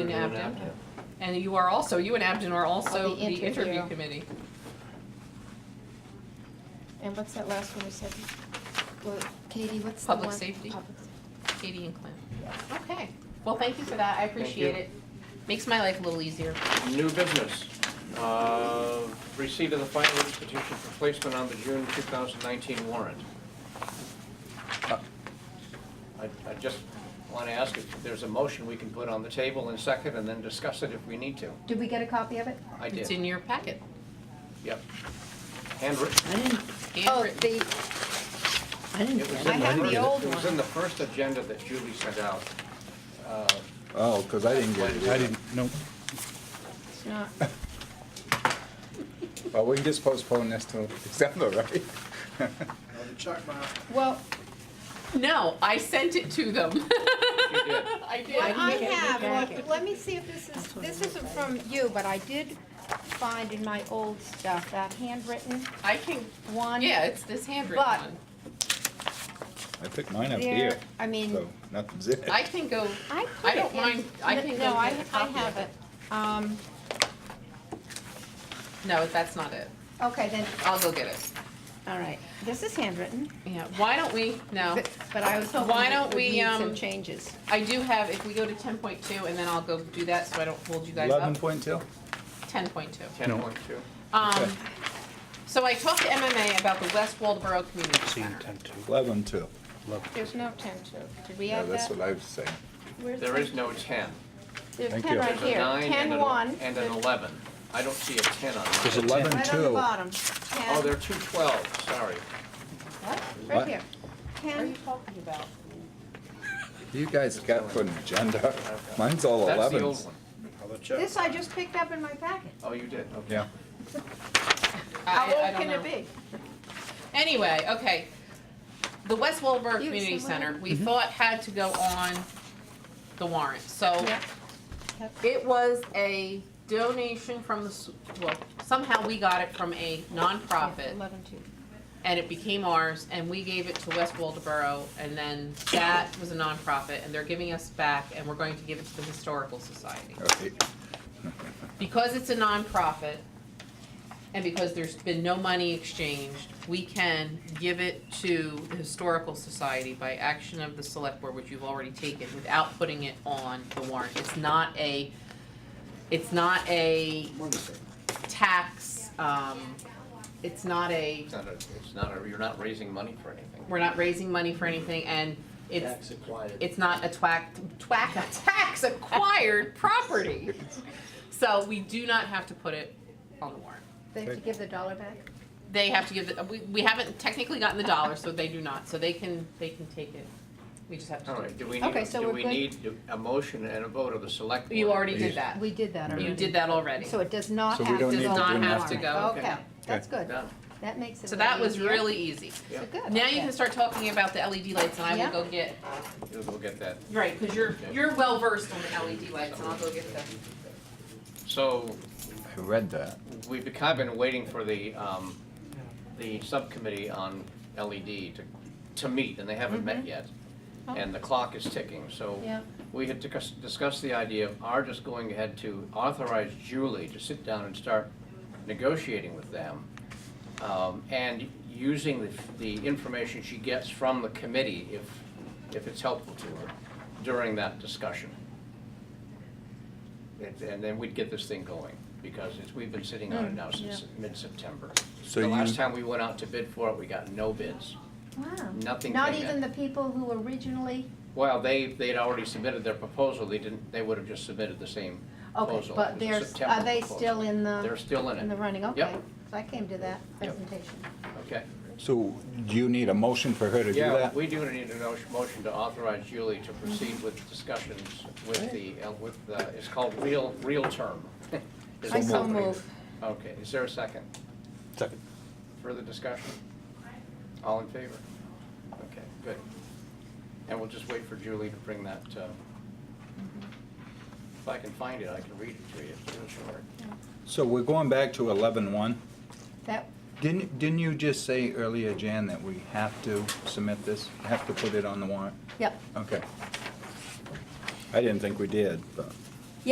and Abden. And you are also, you and Abden are also On the the interview interview. committee. And what's that last one we said? Well, Katie, what's the one? Public safety. Public safety. Katie and Clint. Okay, well, thank you for that, I appreciate you. it. Makes my life a little easier. New business, uh, receipt of the final institution for placement on the June 2019 warrant. I I just want to ask if there's a motion we can put on the table in second and then discuss it if we need to. Did we get a copy of it? I It's did, in your packet, yep. Handwritten. I didn't, Oh, handwritten. the, I didn't. It was get in I have the it old was one. in the first agenda that Julie sent out. Uh, Oh, because I didn't get it. I didn't, no, it's not, Well, we can just postpone this till December, right? well, No, I sent it to them. You did. I did. what I didn't get it in the have, packet. let- let me see if this is, this isn't from you, but I did find in my old stuff, that handwritten I can, one. yeah, it's this handwritten But- one. I picked mine up There, here, I mean. so nothing's in it. I can go, I I put don't it in- mind- I no- can go No, I, get a I copy have of it. Um, no, that's not it. okay, then, I'll go get it. all right, this is handwritten, Yeah, why don't we, no, but but I was hoping Why that it don't would we, need some um, changes. I do have, if we go to ten point two, and then I'll go do that, so I don't hold you guys Eleven up. point two? Ten point two. 10.2. Um, so I talked to MMA about the West Waldeboro Community see, Center. ten two, Eleven two. eleven. There's no ten to, did we Yeah, add that's that? what I was saying. Where's There the- is no 10. There's Thank ten you. right There's a here, 9 and ten an one. and an 11. I don't see a 10 on mine. There's eleven Right on the two. bottom, Oh, there are ten, two 12s, sorry. What right What? here, are you ten, talking about? You guys got for an agenda. Mine's all That's the elevens. old one. this I just picked up in my packet. Oh, you did, okay. Yeah. How I- I old don't can know. it be? Anyway, okay. The West Waldeboro You, Community someone- Center, we thought had to go on the warrant, Oh. so Yep. it was a donation from the, s- well, somehow we got it from a nonprofit. Eleven two. and it became ours, and we gave it to West Waldeboro, and then that was a nonprofit, and they're giving us back, and we're going to give it to the Historical Society. Okay. Because it's a nonprofit, and because there's been no money exchanged, we can give it to the Historical Society by action of the Select Board, which you've already taken, without putting it on the warrant. It's not a, it's not a tax, um, it's not a It's not a, it's not a, you're not raising money for anything. we're not raising money for anything, and it's, Tax acquired. it's not a twack, twack, a tax acquired property. So we do not have to put it on the warrant. They have to give the dollar back? They have to give, the we, we haven't technically gotten the dollar, so they do not, so they can, they can take it. We just have All to right, do we Okay, need, so do we're we good? need a motion and a vote of the select do, board? you already did that. We did that already. You did that already. So it does not So have we to go. don't need to Does not on the have to warrant. go. Okay, Okay. that's good. Done. That makes it. So that way was easier. really easy. So Yep. good. Now you okay. can start talking about the LED lights, and I Yeah. will go get, You'll go get that. right, because you're, you're well versed on the LED lights, and I'll go get the. So I read that. we've been- kind of been waiting for the, um, the subcommittee on LED to, to meet, and they haven't met yet. And the clock is ticking, so Yeah. we had discuss- discussed the idea of our just going ahead to authorize Julie to sit down and start negotiating with them. um, And using the, the information she gets from the committee, if, if it's helpful to her, during that discussion. And- And then we'd get this thing going, because it's, we've been sitting Mm, on it now since mid-September. So The you- last time we went out to bid for it, we got no bids. Wow. Nothing Not came in. even the people who originally, Well, they, they'd already submitted their proposal, they didn't, they would have just submitted the same okay, proposal. It but was a there's, September are they proposal. still in They're the, still in in the it, running? Okay. Yep. So I came to that presentation. okay. So do you need a motion for her to do Yeah, that? we do need a no- motion to authorize Julie to proceed with discussions with the, uh, with, the- it's called real, real term. Is I the so company. move. Okay, is there a second? Second. Further discussion? All in favor? Okay, good. And we'll just wait for Julie to bring that, uh, Mm-hmm. if I can find it, I can read it to you, it's real short. So we're going back to eleven one. That, Didn't, didn't you just say earlier, Jan, that we have to submit this, have to put it on the warrant? yep. Okay. I didn't think we did, but.